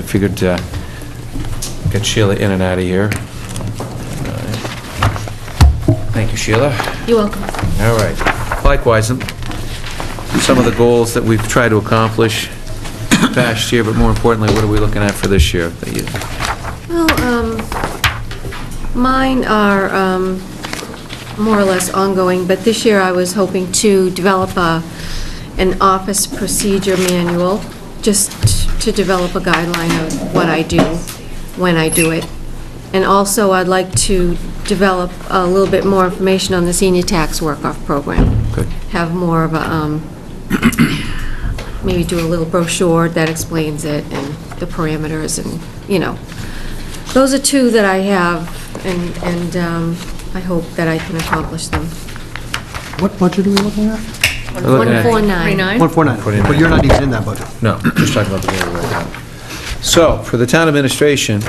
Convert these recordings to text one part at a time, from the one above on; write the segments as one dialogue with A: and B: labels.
A: I figured uh get Sheila in and out of here. Thank you, Sheila.
B: You're welcome.
A: All right. Likewise, um, some of the goals that we've tried to accomplish past year, but more importantly, what are we looking at for this year? that you-
B: Well, um, mine are um, more or less ongoing, but this year I was hoping to develop a, an office procedure manual, just to develop a guideline of what I do, when I do it. And also, I'd like to develop a little bit more information on the senior tax work-off program.
A: Good.
B: Have more of a, um, maybe do a little brochure that explains it and the parameters and, you know. Those are two that I have, and, and um, I hope that I can accomplish them.
C: What budget are we looking at?
A: We're looking at-
B: 149.
C: 149, but you're not even in that budget.
A: No, just talking about the mayor right now. So, for the town administration,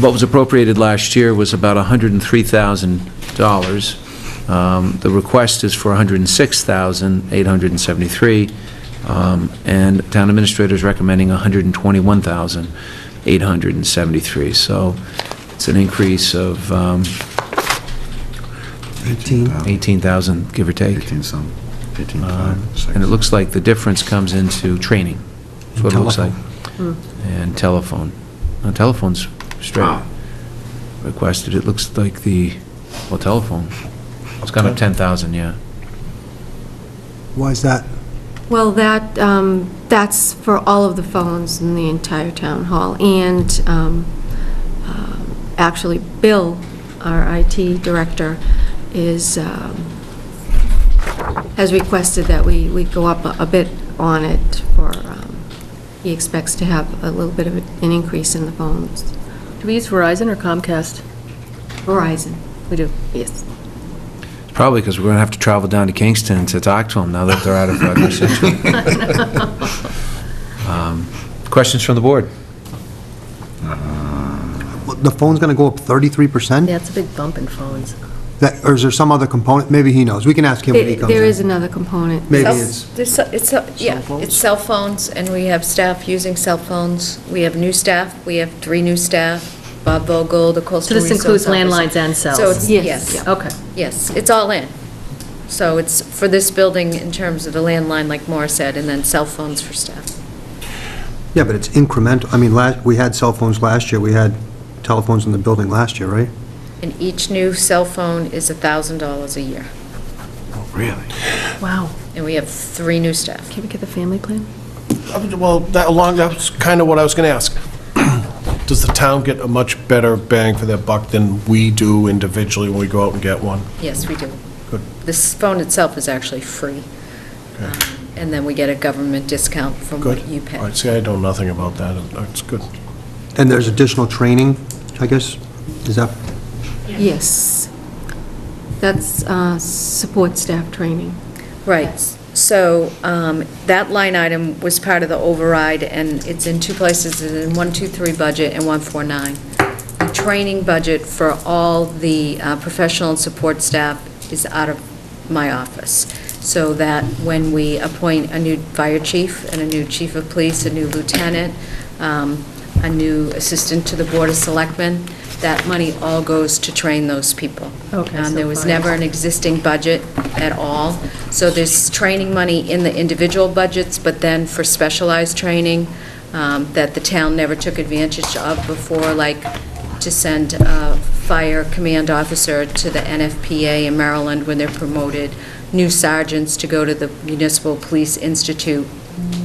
A: what was appropriated last year was about $103,000. Um, The request is for $106,873, um, and town administrator's recommending $121,873. So, it's an increase of um,
C: 18.
A: 18,000, give or take.
D: 18 some, 18
A: Um,
D: five, six.
A: And it looks like the difference comes into training. That's what it looks like. And telephone. No, telephone's straight requested. It looks like the, well, telephone. It's gone up 10,000, yeah.
C: Why is that?
B: Well, that, um, that's for all of the phones in the entire town hall, and um, um, actually, Bill, our IT director, is, um, has requested that we, we go up a- a bit on it for, um, he expects to have a little bit of an increase in the phones.
E: Do we use Verizon or Comcast?
B: Verizon,
E: We do.
B: yes.
A: It's Probably because we're going to have to travel down to Kingston to talk to them now that they're out of uh, New Century. Um, Questions from the board?
C: The phone's going to go up 33%?
E: Yeah, it's a big bump in phones.
C: That, or is there some other component? Maybe he knows. We can ask him when he
B: There
C: comes in.
B: there is another component.
C: Maybe
F: Cell-
C: it's,
F: there's ce- It's, ce- yeah, it's cell phones, and we have staff using cell phones. We have new staff, we have three new staff, Bob Vogel, the
E: So
F: coastal
E: this
F: resource
E: includes
F: officer.
E: landlines and cells?
F: So it's,
B: Yes.
F: yes,
E: Okay.
F: yes, it's all in. So it's for this building in terms of the landline, like Maura said, and then cell phones for staff.
C: yeah, but it's incremental. I mean, last, we had cell phones last year, we had telephones in the building last year, right?
F: And each new cell phone is $1,000 a year,
D: Really?
E: Wow.
F: and we have three new staff.
B: Can we get the family plan?
G: Well, that, along, that's kind of what I was going to ask. Does the town get a much better bang for their buck than we do individually when we go out and get one?
F: Yes, we do.
G: Good.
F: This phone itself is actually free,
G: Okay.
F: Um, and then we get a government discount from
G: Good.
F: what you pay.
G: All right, see, I know nothing about that. It's good.
C: And there's additional training, I guess? Is that,
B: Yes. That's uh, support staff training.
F: Right, so um, that line item was part of the override, and it's in two places, it's in 123 budget and 149. The training budget for all the uh, professional and support staff is out of my office, so that when we appoint a new fire chief and a new chief of police, a new lieutenant, um, a new assistant to the Board of Selectmen, that money all goes to train those people.
E: Okay,
F: Um,
E: so
F: There was
E: fine.
F: never an existing budget at all. So there's training money in the individual budgets, but then for specialized training um, that the town never took advantage of before, like to send a fire command officer to the NFPA in Maryland when they're promoted, new sergeants to go to the Municipal Police Institute.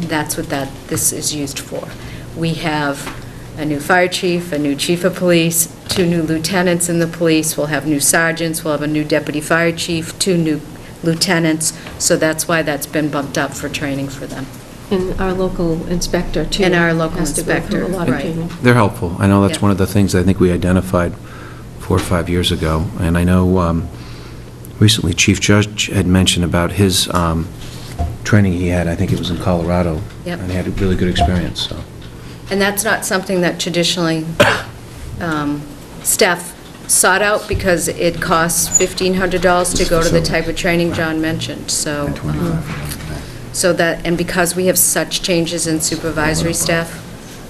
F: That's what that, this is used for. We have a new fire chief, a new chief of police, two new lieutenants in the police, we'll have new sergeants, we'll have a new deputy fire chief, two new lieutenants, so that's why that's been bumped up for training for them.
B: And our local inspector, too.
F: And our local
B: Has to go
F: inspector,
B: through a lot of
F: right.
B: training.
A: They're helpful. I know that's
F: Yeah.
A: one of the things I think we identified four or five years ago. And I know um, recently Chief Judge had mentioned about his um, training he had, I think it was in Colorado.
F: Yep.
A: And he had a really good experience, so.
F: And that's not something that traditionally um, staff sought out because it costs $1,500 to go to the type of training John mentioned, so,
D: And
F: um,
D: 25 for that.
F: so that, and because we have such changes in supervisory staff,